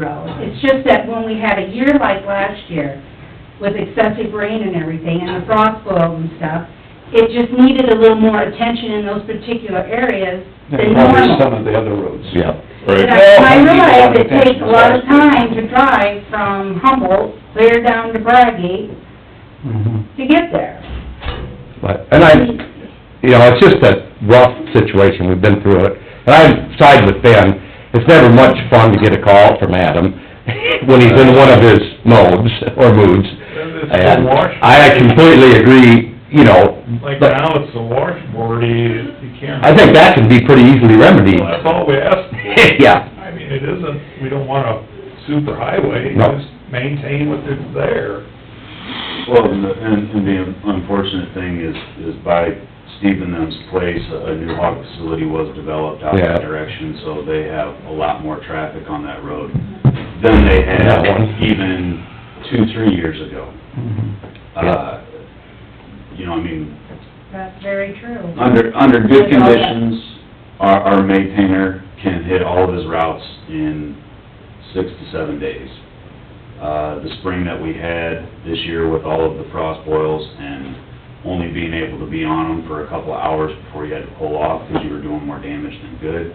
road. It's just that when we had a year like last year, with excessive rain and everything, and the frost boils and stuff, it just needed a little more attention in those particular areas than And probably some normal. of the other roads. Yeah. And Right, I- I Well, realize it attention takes a lot of is last time to drive from Humboldt clear down to Braggie Mhm. to get there. But, and I, you know, it's just a rough situation, we've been through it. And I side with Ben, it's never much fun to get a call from Adam when he's in one of his modes or moods. It's the And wash- I completely agree, you know, like but now it's the washboard, you, you can't. I think that can be pretty easily remedied. Well, That's all we ask. Yeah. I mean, it isn't, we don't want a super highway, No. just maintain what is there. Well, and, the- and and the unfortunate thing is, is by Steve and them's place, a new hog facility was developed out Yeah. that direction, so they have a lot more traffic on that road than they had That one. even two, three years ago. Mhm. Uh, You know, I mean, That's very true. under, under good That's all that- conditions, our, our maintainer can hit all of his routes in six to seven days. Uh, the spring that we had this year with all of the frost boils and only being able to be on them for a couple of hours before you had to pull off because you were doing more damage than good,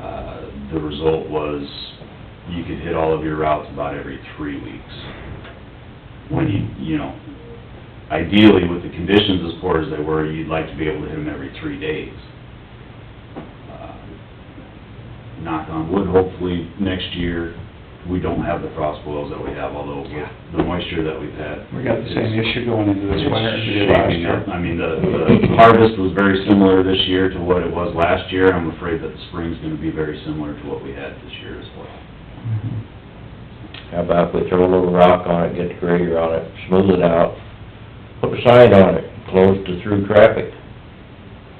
uh, the result was you could hit all of your routes about every three weeks. When you, you know, ideally, with the conditions as poor as they were, you'd like to be able to hit them every three days. Uh, Knock on wood, hopefully, next year, we don't have the frost boils that we have, although with the moisture that we've had. We got the same it's- issue going into this winter as we did It's last shaping year. up. I mean, the, the harvest was very similar this year to what it was last year. I'm afraid that the spring's gonna be very similar to what we had this year as well. How about we throw a little rock on it, get the grader on it, smooth it out, put a sign on it, closed to through traffic.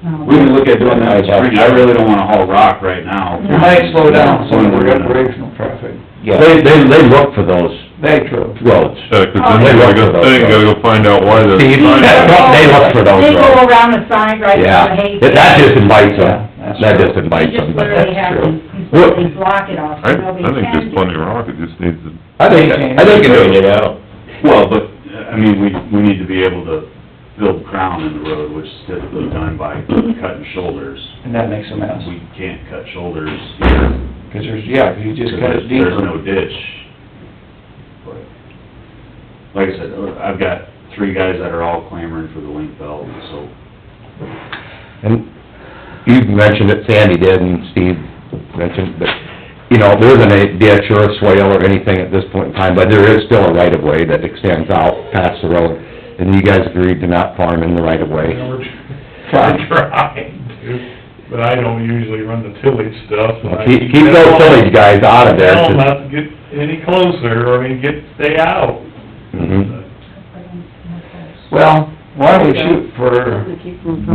No. We can look at doing that in spring. I really don't wanna haul rock right now. You might slow down some of When we're the gonna- recreational traffic. They, they, they look for those That true. roads. Uh, Yeah, 'cause Oh, then you gotta go, then you gotta go find out why they're. Steve? They look for those They go roads. around the side right now, Yeah, hey. that just invites Yeah, them, that's that true. just invites You just them, but literally that's have true. to completely block it off, I, so nobody I think can there's do it. plenty of rock, it just needs to, I think, I think it Straighten is. it out. Well, but, uh, I mean, we, we need to be able to build crown in the road, which is typically done by cutting shoulders. And that makes a mess, We can't cut shoulders here. because there's, yeah, if you just cut it because There's no deeper. ditch. But, Like I said, I've got three guys that are all clamoring for the link belt, so And you mentioned it, Sandy did, and Steve mentioned, but, you know, there isn't a ditch or a swale or anything at this point in time, but there is still a right-of-way that extends out past the road, and you guys agreed to not farm in the you know, right-of-way. we're we're trying to, but I don't usually run the tillage stuff. and I Keep, keep those telling- tillage guys out of there. Tell them not to get any closer, or I mean, get, stay out. uh, Mhm. Well, why don't we shoot for,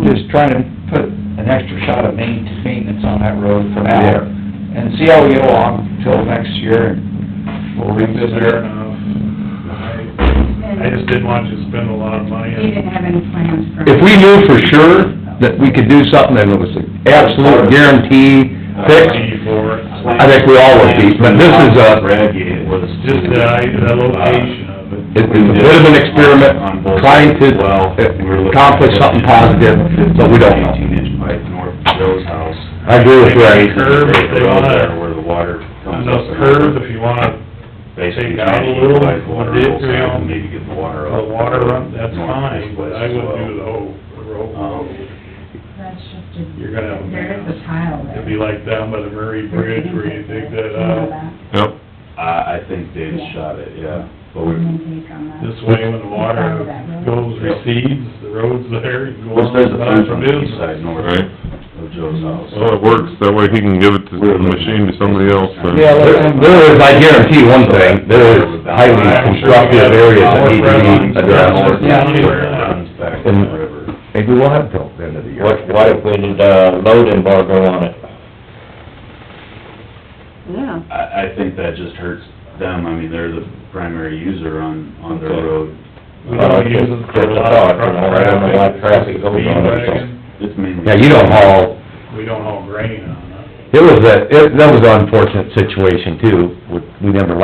just trying to put an extra shot of main, maintenance on that road for now? Yeah. And see how we get along till next year, and we'll revisit Fair it. enough. I, I just didn't want you to spend a lot of money He on didn't have any plans for. If we knew for sure that we could do something, and it was an absolute guarantee, fix, fee for it. I think we all would be, but this is a, Brad it was Just the, the location of it. It was a bit of an experiment, trying to accomplish something positive, but we don't know. Eighteen inch pipe north of Joe's house. I agree with Ray. Curve, if they Road wanna- there Where the water And comes up. those curves, if you wanna, Basically take out a trying to little, utilize water dip, both you sides know, and Maybe get the water the up. water run, that's north, fine, but west I as wouldn't well. do the whole, the Um, road. That's just a. You're gonna have a There is a mess. tile there. It'd be like down by the Murray Bridge where you dig that out. Yep. I, I think Dave Yeah. shot it, yeah. But we, This way, when the water goes, recedes, the road's there, you go well, on there's a about fence on your the east business. side north Right. of Joe's house. Well, it works, that way he can give it to We're the looking- machine to somebody else, then. Yeah, let- There there is, I guarantee one thing, there is highly constructive areas that need to be addressed. Yeah. Runs back to the river. Maybe we'll have till the end of the year. What, what if we did a load embargo on it? Yeah, I, I think that just hurts them, I mean, they're the primary user on, on their Okay. road. We don't Uh, use it for a lot of truck I don't know why traffic. traffic goes on it, so. Speed wagon, It's mainly. Yeah, you don't haul, we don't haul grain on It it. was a, it, that was an unfortunate situation too, with- we never